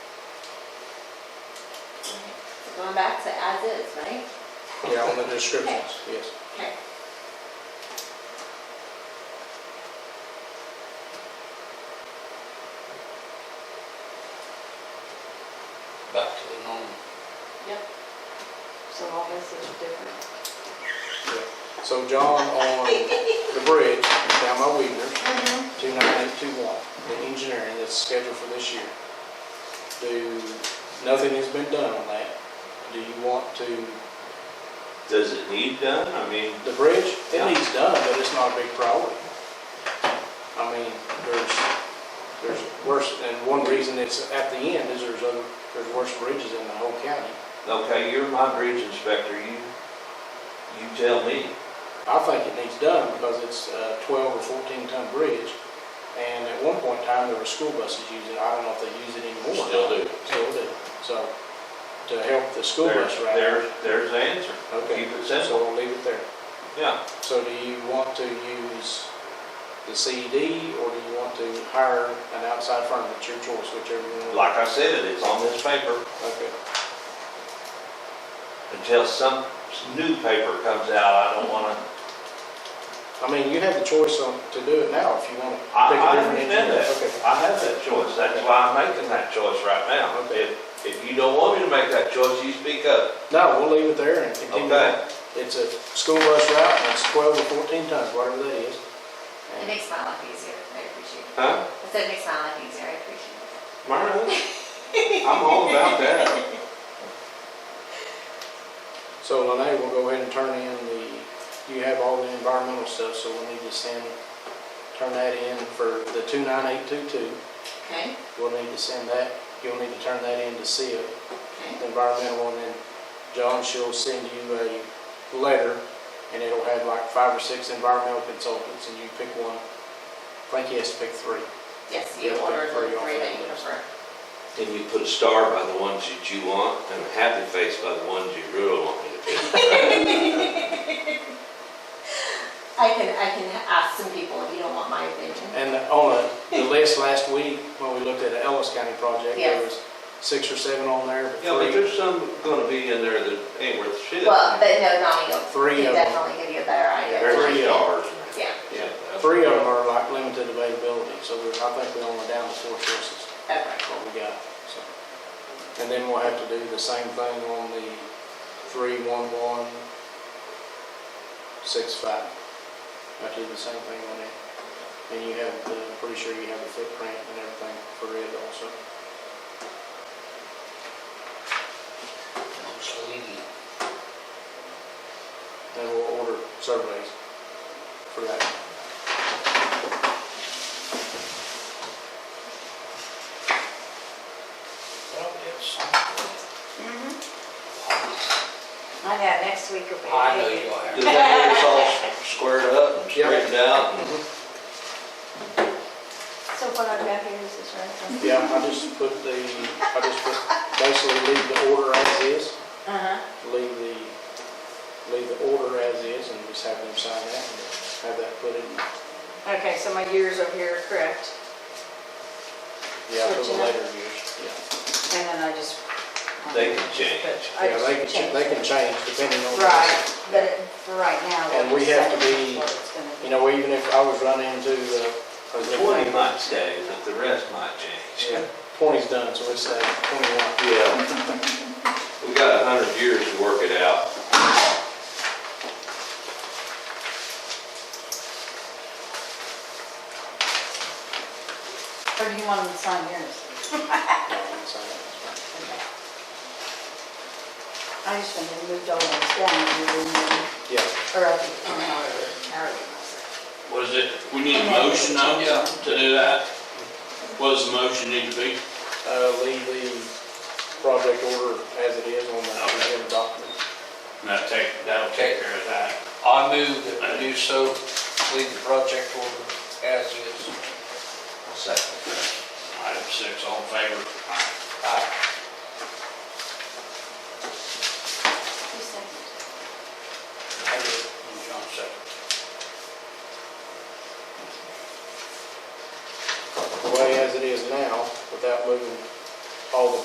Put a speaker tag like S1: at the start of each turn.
S1: going back to as is, right?
S2: Yeah, on the descriptions, yes.
S1: Okay.
S3: back to the norm.
S1: Yep. So all this is different.
S2: Yeah. So John, on the bridge down by Weaver,
S1: Mm-hmm.
S2: two nine eight two one, the engineering that's scheduled for this year. Do, nothing has been done on that. Do you want to,
S4: Does it need done? I mean,
S2: the bridge, it
S4: Yeah.
S2: needs done, but it's not a big priority. I mean, there's, there's worse, and one reason it's at the end is there's other, there's worse bridges in the whole county.
S4: okay, you're my bridge inspector, you, you tell me.
S2: I think it needs done because it's a 12 or 14 ton bridge. And at one point in time, there were school buses using it. I don't know if they use it anymore.
S3: Still do.
S2: Still do. So to help the school
S4: There's,
S2: bus
S4: there's,
S2: riders.
S4: there's the answer.
S2: Okay.
S4: Keep it
S2: So
S4: simple.
S2: we'll leave it there.
S4: Yeah,
S2: So do you want to use the CED or do you want to hire an outside firm? It's your choice, whichever you want.
S4: like I said, it's on this paper
S2: Okay.
S4: until some new paper comes out. I don't wanna,
S2: I mean, you have the choice on, to do it now if you want to.
S4: I,
S2: pick a
S4: I
S2: different engineer.
S4: understand that.
S2: Okay.
S4: I have that choice. That's why I'm making that choice right now.
S2: Okay.
S4: If, if you don't want me to make that choice, you speak up.
S2: No, we'll leave it there and continue. on.
S4: Okay?
S2: It's a school bus route, and it's 12 or 14 tons, whatever that is.
S5: It makes my life easier, I appreciate it.
S4: Huh?
S5: I said it makes my life easier, I appreciate it.
S4: Myron, I'm all about that.
S2: So Lene will go ahead and turn in the, you have all the environmental stuff, so we'll need to send, turn that in for the 29822.
S1: Okay,
S2: We'll need to send that, you'll need to turn that in to SIP,
S1: okay.
S2: the environmental, and then John, she'll send you a letter, and it'll have like five or six environmental consultants, and you pick one. I think he has to pick three.
S1: Yes, you
S2: Yeah,
S1: ordered
S2: for
S1: the
S2: your
S1: three that you
S2: families.
S1: prefer.
S3: Then you put a star by the ones that you want and a happy face by the ones you really want me to pick.
S1: I can, I can ask some people if you don't want my opinion.
S2: And on the- the list last week, when we looked at the Ellis County project, there
S1: Yes.
S2: was six or seven on there, but
S4: Yeah,
S2: three,
S4: but there's some gonna be in there that ain't worth shit.
S1: Well, but no, Donnie will,
S2: Three
S1: he'll
S2: of 'em.
S1: definitely give you a better idea.
S2: Very
S1: than I
S4: Three
S1: can.
S4: stars.
S1: Yeah,
S4: Yeah.
S2: three of them are like limited availability, so we're, I think we're only down to four choices,
S1: okay.
S2: that's what we got, so. And then we'll have to do the same thing on the three, one, one, six, five. I do the same thing on it, and you have, the- I'm pretty sure you have the footprint and everything for it also. Then we'll order surveys for that.
S6: I know, next week will
S4: Oh,
S6: be.
S3: I know you are.
S4: Does that get us all squared up and
S2: Yeah.
S4: straightened out? and-
S6: So what I've got here is this right?
S2: Yeah, I just put the, I just put, basically leave the order as is,
S6: Uh-huh.
S2: leave the, leave the order as is and just have them sign that and have that put in.
S6: Okay, so my years over here are correct,
S2: Yeah, for the
S6: Switching up.
S2: later years, yeah.
S6: and then I just. um,
S4: They can change.
S6: I
S2: Yeah,
S6: just
S2: they can, ch-
S6: changed
S2: they
S6: it.
S2: can change depending on. the-
S6: Right, but it- for right now.
S2: And
S6: what
S2: we
S6: it's
S2: have to
S6: saying
S2: be,
S6: is what it's gonna be.
S2: You know, even if I was running into the.
S4: Twenty might stay, but the rest might change.
S2: Yeah, Twenty's done, so it's uh, twenty-one.
S4: Yeah. We got a hundred years to work it out.
S6: Or do you want them to sign yours? Okay. I just wanted to move all those down, and then,
S2: Yeah,
S6: or up, or however, however. you want to say
S3: Was it, we need a motion though
S2: Yeah.
S3: to do that? What does the motion need to be?
S2: uh, leave the project order as it is on the agenda document.
S3: Now take, that'll take care of that.
S7: I move that we do so, leave the project order as is.
S3: Item six, all in favor?